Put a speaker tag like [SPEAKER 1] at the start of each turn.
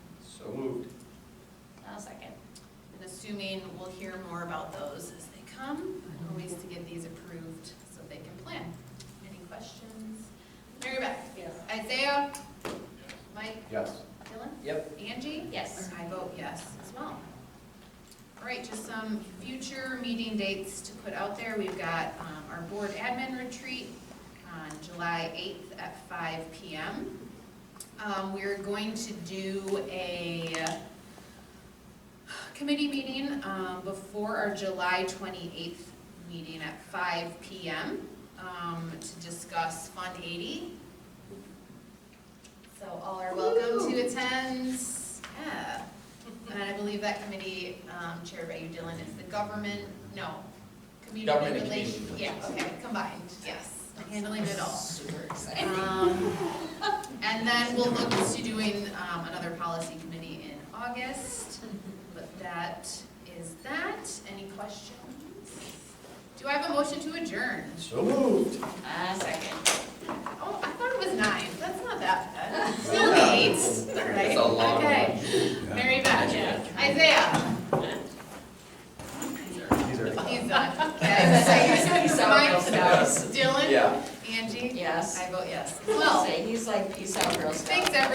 [SPEAKER 1] hopefully we'll hear more about those as they come, or ways to get these approved so they can plan. Any questions? Mary Beth?
[SPEAKER 2] Yes.
[SPEAKER 1] Isaiah? Mike?
[SPEAKER 3] Yes.
[SPEAKER 1] Dylan?
[SPEAKER 3] Yep.
[SPEAKER 1] Angie?
[SPEAKER 2] Yes.
[SPEAKER 1] I vote yes as well. All right, just some future meeting dates to put out there. We've got um, our board admin retreat on July 8th at 5 PM. Um, We're going to do a committee meeting um, before our July 28th meeting at 5 PM um, to discuss Fund 80 so all are welcome to attend. Yeah. And I believe that committee um, chaired by you, Dylan, is the government, no, community
[SPEAKER 3] Government and
[SPEAKER 1] relations.
[SPEAKER 3] community
[SPEAKER 1] Yeah, okay, combined, yes, handling it all.
[SPEAKER 2] Super excited.
[SPEAKER 1] Um, And then we'll look to doing um, another policy committee in August, but that is that. Any questions? Do I have a motion to adjourn?
[SPEAKER 3] So moved.
[SPEAKER 2] Uh, second.
[SPEAKER 1] Oh, I thought it was nine, that's not that bad. It's only eight.
[SPEAKER 3] That's a long
[SPEAKER 1] Okay. Mary Beth, Isaiah.
[SPEAKER 3] These are-
[SPEAKER 1] He's done. Okay.
[SPEAKER 2] He's out,
[SPEAKER 1] Mike,
[SPEAKER 2] he's out.
[SPEAKER 1] Dylan,
[SPEAKER 3] Yeah.
[SPEAKER 1] Angie,
[SPEAKER 2] Yes.
[SPEAKER 1] I vote yes.
[SPEAKER 2] Well,
[SPEAKER 1] Well,
[SPEAKER 2] say, he's like, peace out, girl scout.
[SPEAKER 1] thanks, everyone.